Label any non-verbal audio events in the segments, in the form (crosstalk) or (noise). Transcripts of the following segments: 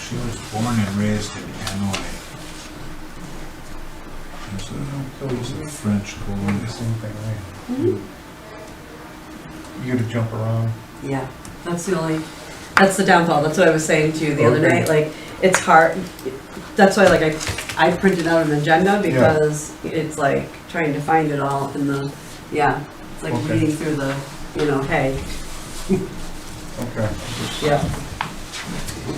She was born and raised in Hanoi. It's a, So it's a you French do the colonial. same thing, right? Mhm. You gotta jump around. Yeah, that's the only, that's the downfall, that's what I was saying to you the other Okay. night, like, it's hard, that's why like I, I printed out an agenda because it's like trying to find it all in the, yeah, it's like Okay. reading through the, you know, hey, Okay. yeah.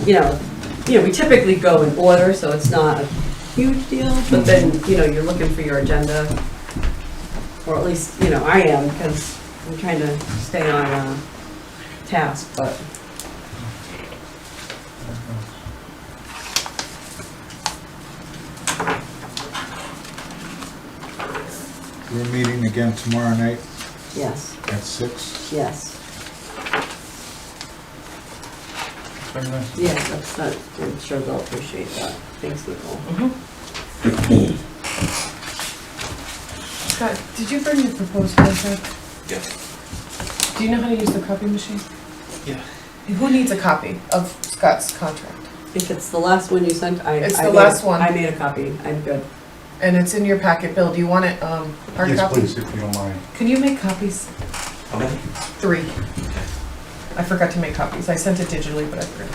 You know, you know, we typically go in order, so it's not a huge deal, but then, Mm-hmm. you know, you're looking for your agenda, or at least, you know, I am, because I'm trying to stay on, uh, task, but. We're meeting again tomorrow night Yes, at six. yes, Very nice. yes, that's, that- I'm sure they'll appreciate that. Thanks, Nicole. Scott, did you bring the proposed contract? Yes. Do you know how to use the copy machine? Yeah. Who needs a copy of Scott's contract? If it's the last one you sent, I. It's I the made- last one. I made a copy, I'm good. And it's in your packet, Bill, do you want it, um, hard Yes, copy? please, if you don't mind. Can you make copies? Okay. Three. I forgot to make copies, I sent it digitally, but I forgot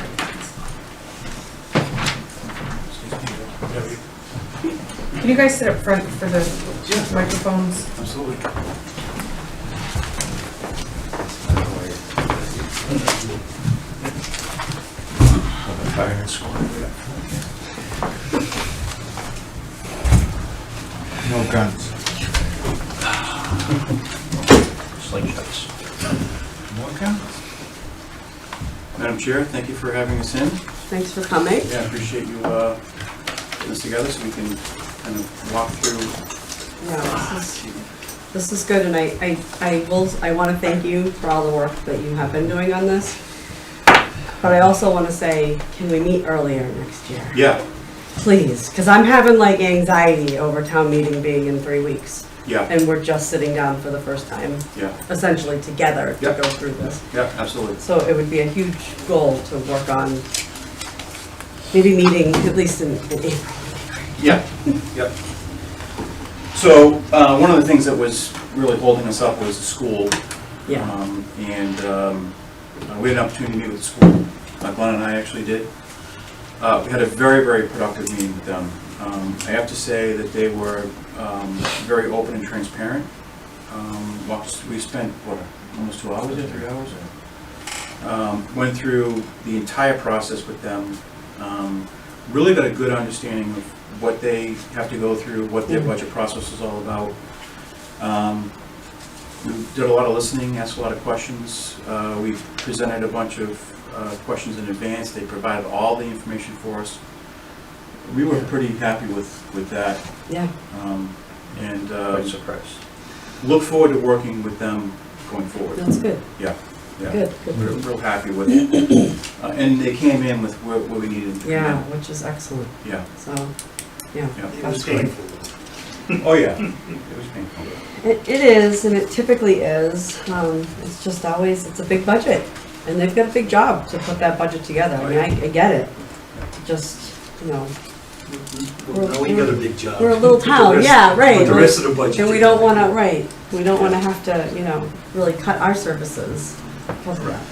to make copies. Can you guys sit up front for the microphones? Absolutely. No guns. Slingshots. No guns? Madam Chair, thank you for having us in. Thanks for coming. Yeah, I appreciate you uh, putting this together so we can kind of walk through. Yeah, this is, this is good, and I, I, I will, I wanna thank you for all the work that you have been doing on this. But I also wanna say, can we meet earlier next year? Yeah, Please, cause I'm having like anxiety over town meeting being in three weeks, yeah, and we're just sitting down for the first time, yeah, essentially together, to Yep. go through this. yeah, absolutely. So it would be a huge goal to work on, maybe meeting at least in in April. (laughs) Yeah, yep. So uh, one of the things that was really holding us up was the school. Yeah, Um, And um, uh, we had an opportunity to meet with the school. Uh, Glenn and I actually did. Uh, We had a very, very productive meeting with them. Um, I have to say that they were um, very open and transparent. Um, walked us- We spent, what, almost two hours, or three hours? Um, Went through the entire process with them. Um, Really got a good understanding of what they have to go through, what their budget process is all about. Um, we did a lot of listening, asked a lot of questions. Uh, We presented a bunch of uh, questions in advance. They provided all the information for us. We were pretty happy with, with that. yeah, um, And uh, Quite surprised. look forward to working with them going forward. that's good, Yeah, good, We're good. real happy with it. Uh, And they came in with what what we needed. to come in. Yeah, which is excellent, Yeah, so, yeah. yeah. It was painful. Oh, yeah. It was painful. It it is, and it typically is, um, it's just always, it's a big budget, and they've got a big job to put that budget together, I mean, I, I get it. Just, you know, We're- Now we got a big job. we're a little Put the town, rest- yeah, right. Put the like- rest of the budget. And we don't wanna, right, we don't wanna have to, you know, really cut our services because of that.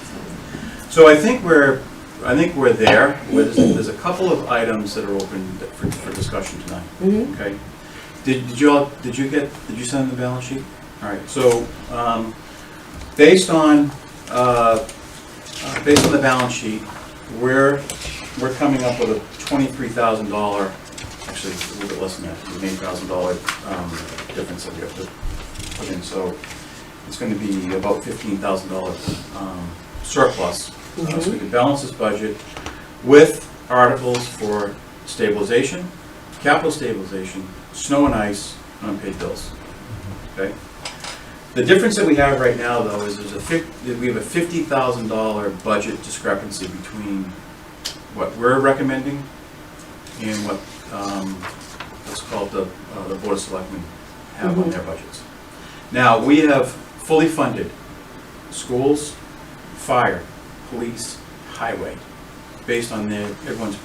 So I think we're, I think we're there. There's there's a couple of items that are open for for discussion tonight. Mm-hmm, Okay. Did, did you all, did you get, did you send the balance sheet? All right, so, um, based on, uh, uh, based on the balance sheet, we're, we're coming up with a twenty-three thousand dollar, actually, a little bit less than that, eight thousand dollar, um, difference that we have to put in, so it's gonna be about fifteen thousand dollar, um, surplus. Uh, So we can balance this budget with articles for stabilization, capital stabilization, snow and ice, and unpaid bills. Okay? The difference that we have right now, though, is there's a fif, that we have a fifty thousand dollar budget discrepancy between what we're recommending and what, um, what's called the, uh, the Board of Selectmen have on their budgets. Now, we have fully funded schools, fire, police, highway, based on their, everyone's